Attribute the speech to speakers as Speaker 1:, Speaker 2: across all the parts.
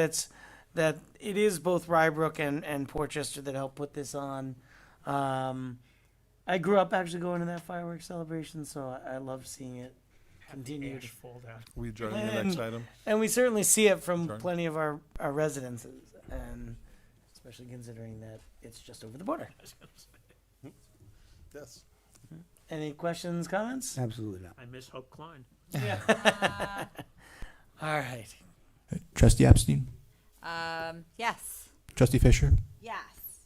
Speaker 1: that's that it is both Rybrook and and Portchester that helped put this on. Um, I grew up actually going to that fireworks celebration, so I, I love seeing it continued.
Speaker 2: Ash fall down.
Speaker 3: We adjourn the next
Speaker 1: And-
Speaker 3: item.
Speaker 1: And we certainly see it from
Speaker 3: Sure.
Speaker 1: plenty of our, our residences, and especially considering that it's just over the border.
Speaker 3: Yes.
Speaker 1: Any questions, comments?
Speaker 4: Absolutely not.
Speaker 2: I miss Hope Klein.
Speaker 1: All right.
Speaker 5: Trustee Epstein,
Speaker 6: Um, yes.
Speaker 5: Trustee Fisher,
Speaker 6: Yes.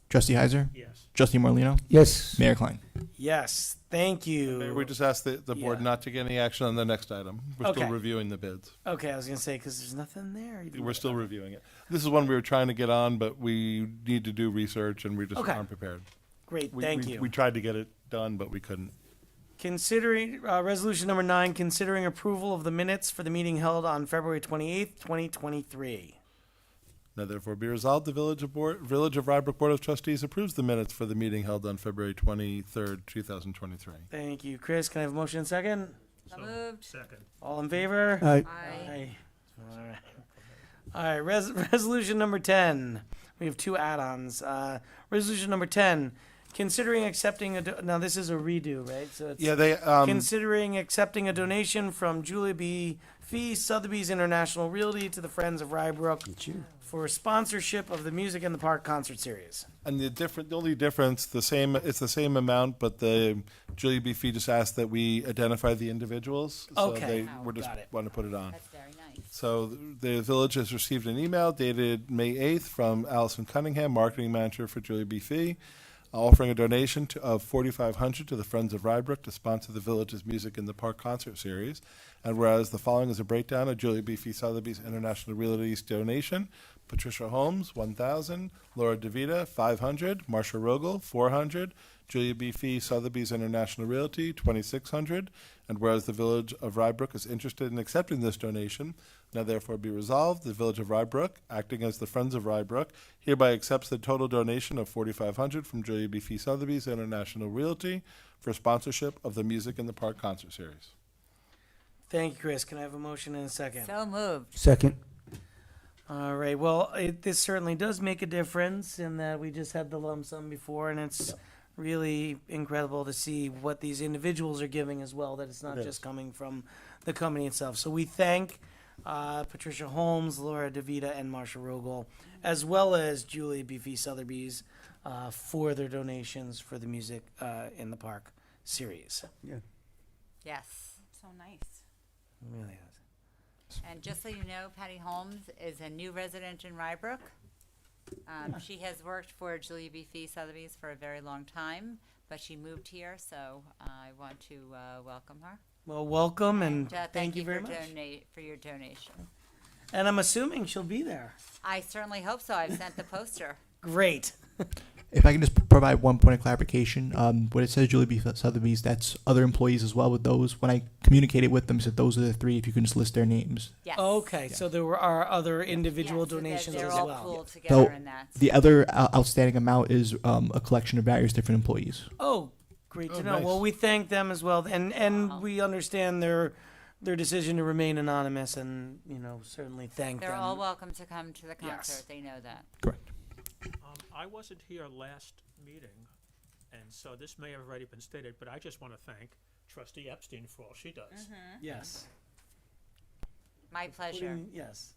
Speaker 5: Trustee Heiser,
Speaker 2: Yes.
Speaker 5: Trustee Morlino,
Speaker 4: Yes.
Speaker 5: Mayor Klein.
Speaker 1: Yes, thank
Speaker 3: Mayor, we
Speaker 1: you.
Speaker 3: just asked the, the board
Speaker 1: Yeah.
Speaker 3: not to get any action on the next item. We're
Speaker 1: Okay.
Speaker 3: still reviewing the bids.
Speaker 1: Okay, I was gonna say because there's nothing there. even
Speaker 3: We're
Speaker 1: though-
Speaker 3: still reviewing it. This is one we were trying to get on, but we need to do research and we just
Speaker 1: Okay.
Speaker 3: aren't prepared.
Speaker 1: Great,
Speaker 3: We-
Speaker 1: thank
Speaker 3: we-
Speaker 1: you.
Speaker 3: We tried to get it done, but we couldn't.
Speaker 1: Considering, uh, resolution number nine, considering approval of the minutes for the meeting held on February twenty-eighth, twenty twenty-three.
Speaker 3: Now therefore be resolved, the Village of Board, Village of Rybrook Board of Trustees approves the minutes for the meeting held on February twenty-third, two thousand twenty-three.
Speaker 1: Thank you, Chris. Can I have a motion and second?
Speaker 6: So moved.
Speaker 2: Second.
Speaker 1: All in favor?
Speaker 4: Uh,
Speaker 6: I
Speaker 1: Aye. All right. All right. Res- resolution number 10. We have two add ons. Uh, resolution number 10. Considering accepting a. Do- now, this is a redo, right? So it's
Speaker 3: Yeah, they, um,
Speaker 1: considering accepting a donation from Julia B. Fee Sotheby's International Realty to the Friends of Rybrook for sponsorship of the Music in the Park concert series.
Speaker 3: and the different, the only difference, the same, it's the same amount, but the Julie B. Fee just asked that we identify the individuals. So
Speaker 1: Okay.
Speaker 3: they We're just,
Speaker 1: Got it.
Speaker 3: want to put it on.
Speaker 6: That's very nice.
Speaker 3: So the village has received an email dated May 8th from Allison Cunningham, marketing manager for Julia B. Fee, offering a donation to, of 4500 to the Friends of Rybrook to sponsor the village's Music in the Park concert series. And whereas the following is a breakdown of Julia B. Fee Sotheby's International Realty's donation, Patricia Holmes, 1000, Laura DeVita, 500, Marsha Rogel, 400, Julia B. Fee Sotheby's International Realty, 2600. And whereas the Village of Rybrook is interested in accepting this donation, now therefore be resolved, the Village of Rybrook, acting as the Friends of Rybrook, hereby accepts the total donation of 4500 from Julia B. Fee Sotheby's International Realty for sponsorship of the Music in the Park concert series.
Speaker 1: Thank you, Chris. Can I have a motion and a second?
Speaker 6: So moved.
Speaker 4: Second.
Speaker 1: All right. Well, it, this certainly does make a difference in that we just had the lump sum before, and it's really incredible to see what these individuals are giving as well. That it's not just coming from the company itself. So we thank uh, Patricia Holmes, Laura Davita, and Marsha Rogel, as well as Julie Beefy Sotheby's uh, for their donations for the music uh, in the park series.
Speaker 6: Yes. So nice.
Speaker 1: Really is.
Speaker 6: And just so you know, Patty Holmes is a new resident in Rybrook. Um, she has worked for Julia B. Fee Sotheby's for a very long time, but she moved here, so I want to uh, welcome her.
Speaker 1: Well, welcome and
Speaker 6: And, uh,
Speaker 1: thank, you, very
Speaker 6: for
Speaker 1: much.
Speaker 6: Donate for your donation.
Speaker 1: And I'm assuming she'll be there.
Speaker 6: I certainly hope so. I've sent the poster.
Speaker 1: Great.
Speaker 5: If I can just provide one point of clarification, um, what it says Julie B. Sotheby's, that's other employees as well with those. When I communicated with them, said those are the three, if you can just list their names.
Speaker 6: Yes.
Speaker 1: Okay, so there were are other individual
Speaker 6: Yes, so that
Speaker 1: donations
Speaker 6: they're
Speaker 1: as
Speaker 6: all
Speaker 1: well.
Speaker 6: pooled together in that.
Speaker 5: The other uh, outstanding amount is um, a collection of various different employees.
Speaker 1: Oh, great to
Speaker 3: Oh,
Speaker 1: know.
Speaker 3: nice.
Speaker 1: Well, we thank them as well, and and
Speaker 6: Wow.
Speaker 1: we understand their their decision to remain anonymous, and you know certainly thank
Speaker 6: They're
Speaker 1: them.
Speaker 6: all welcome to come to the
Speaker 1: Yes.
Speaker 6: concert. They know that.
Speaker 5: Correct.
Speaker 2: Um, I wasn't here last meeting, and so this may have already been stated, but I just want to thank Trustee Epstein for all she
Speaker 6: Mm-hmm.
Speaker 2: does.
Speaker 1: yes,
Speaker 6: My pleasure.
Speaker 1: Putting- Mm, yes,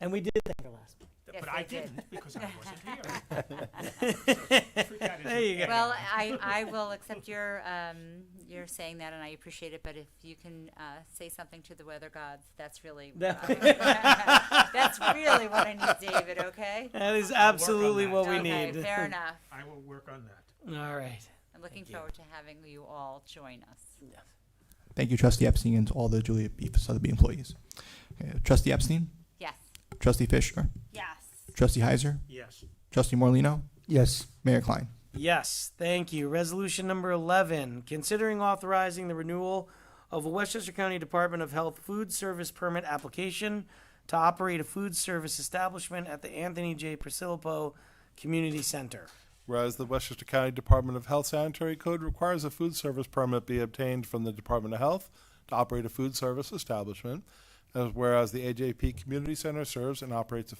Speaker 1: and we did thank her last. month.
Speaker 2: Th-
Speaker 6: Yes,
Speaker 2: But
Speaker 6: I
Speaker 2: I
Speaker 6: did.
Speaker 2: didn't, because I wasn't here.
Speaker 1: There you go.
Speaker 6: Well, I, I will accept your, um, your saying that, and I appreciate it, but if you can, uh, say something to the weather gods, that's really, what I- that's really what I need, David, okay?
Speaker 1: That is absolutely
Speaker 2: that.
Speaker 1: what we
Speaker 6: Okay,
Speaker 1: need.
Speaker 6: Fair enough.
Speaker 2: I will work on that.
Speaker 1: All right.
Speaker 6: I'm looking
Speaker 1: Thank you.
Speaker 6: forward to having you all join us.
Speaker 5: Thank you, Trustee Epstein, and to all the Julia B. Sotheby employees. Okay, Trustee Epstein,
Speaker 6: Yes.
Speaker 5: Trustee Fisher,
Speaker 6: Yes.
Speaker 5: Trustee Heiser,
Speaker 2: Yes.
Speaker 5: Trustee Morlino,
Speaker 4: Yes.
Speaker 5: Mayor Klein.
Speaker 1: Yes, thank you. Resolution number 11, considering authorizing the renewal of a Westchester County Department of Health food service permit application to operate a food service establishment at the Anthony J. Priscillipo Community Center.
Speaker 3: Whereas the Westchester County Department of Health Sanitary Code requires a food service permit be obtained from the Department of Health to operate a food service establishment. Whereas the AJP Community Center serves and operates a